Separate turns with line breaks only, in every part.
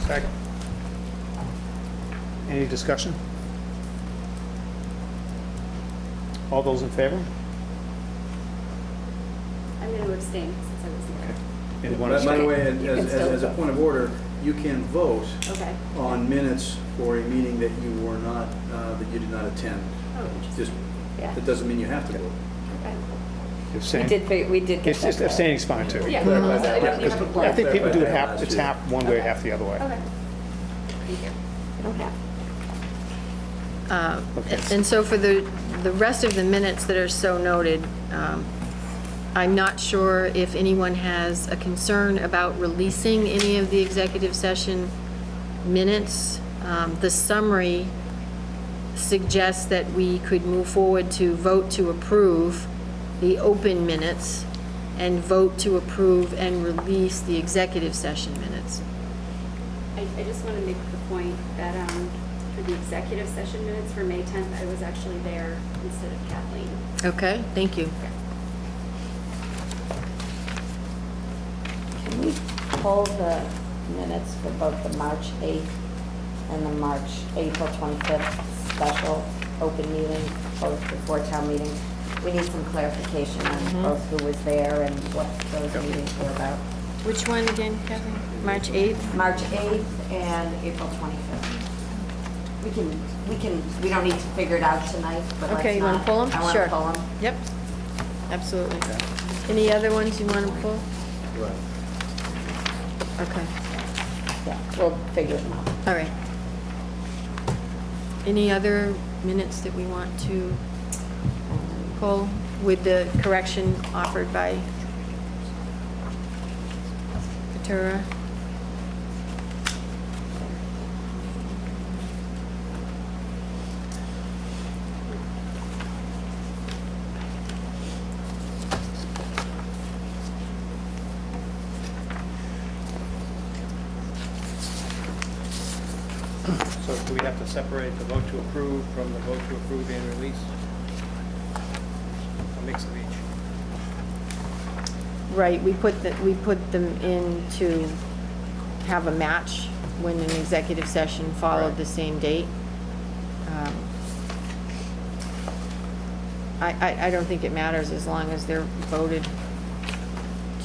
Second. Any discussion? All those in favor?
I'm going to abstain since I was here.
Anyone
By by the
abstain?
way, as,
You can
as-
still
as a
vote.
point of order, you can vote
Okay.
on minutes for a meeting that you were not, uh, that you did not attend.
Oh, interesting.
Just,
Yeah.
that doesn't mean you have to vote.
Okay.
We
Abstain?
did, fi- we did get
It's
that.
just abstaining's fine too.
Yeah.
Clarify
so
that.
you don't- you
Yeah,
have a
'cause
I
quorum.
think people do it half,
Clarify
it's
that.
half one way, half the other way.
Okay. Thank you. I don't have.
Uh,
Okay.
And so for the, the rest of the minutes that are so noted, um, I'm not sure if anyone has a concern about releasing any of the executive session minutes. Um, The summary suggests that we could move forward to vote to approve the open minutes and vote to approve and release the executive session minutes.
I, I just want to make the point that, um, for the executive session minutes for May 10th, I was actually there instead of Kathleen.
Okay, thank you.
Can we pull the minutes for both the March 8th and the March, April 25th special open meeting, both before town meeting? We need some clarification
Mm-hmm.
on both who was there and what those meetings were about.
Which one again, Kevin? March 8th?
March 8th and April 25th. We can, we can, we don't need to figure it out tonight, but let's not.
Okay, you want to pull them?
I want
Sure.
to pull them.
Yep, absolutely. Any other ones you want to pull?
Right.
Okay,
Yeah, we'll figure them out.
all right. Any other minutes that we want to pull with the correction offered by Ventura?
So do we have to separate the vote to approve from the vote to approve and release? A mix of each.
Right, we put the, we put them in to have a match when an executive session followed the same date. Um, I, I, I don't think it matters as long as they're voted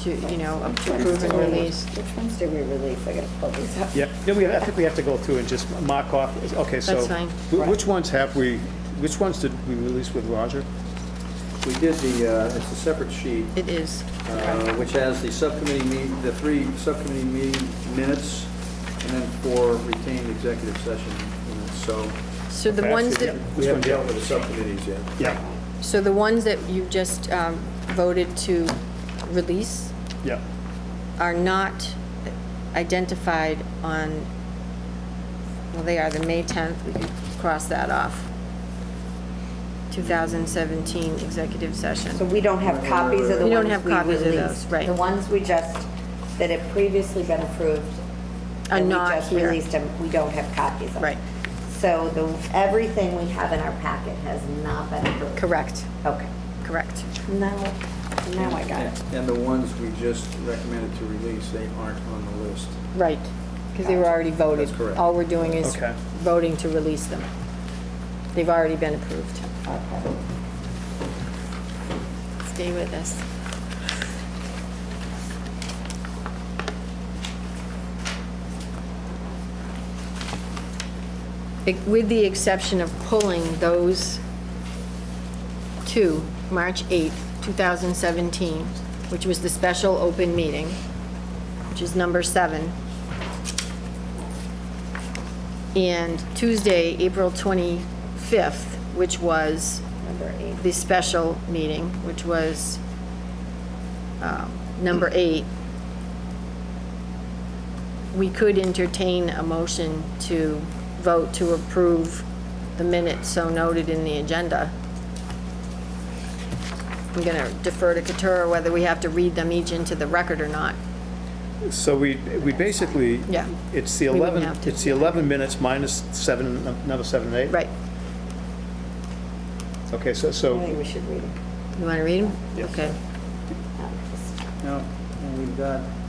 to, you know, up to approve and release.
Which ones did we release? I gotta pull these up.
Yeah, then we, I think we have to go through and just mark off, okay, so.
That's fine.
wh- Which ones have we, which ones did we release with Roger?
We did the, uh, it's a separate sheet,
It is.
uh, which has the subcommittee meet, the three subcommittee meeting minutes, and then four retained executive session minutes, so
So the
Okay,
ones
so
that,
yeah.
we haven't dealt with the subcommittees yet.
Yeah,
so the ones that you just um, voted to release
yeah,
are not identified on, well, they are the May 10th, we could cross that off. 2017 executive
So
session.
we don't have copies of the
We don't
ones
have
we
copies of
released.
those, right.
The ones we just, that had previously been approved.
Are
and we
not
just
here.
released them, we don't have copies of.
Right.
So the, everything we have in our packet has not been approved.
Correct,
Okay.
correct.
Now, now I got it.
And the ones we just recommended to release, they aren't on the list.
Right, because they were already voted.
That's correct.
All we're doing is
Okay.
voting to release them. They've already been approved. Stay with us. Ex- With the exception of pulling those two, March 8th, 2017, which was the special open meeting, which is number seven, and Tuesday, April 25th, which was the special meeting, which was um, number eight, we could entertain a motion to vote to approve the minutes so noted in the agenda. I'm going to defer to Katura whether we have to read them each into the record or not.
so we, we basically.
Yeah.
It's the
We wouldn't
11,
have to.
it's the 11 minutes minus seven, another seven and eight?
Right.
Okay, so,
I think
so,
we should read them.
You want to read them?
Yes.
Okay.
Now, and we've got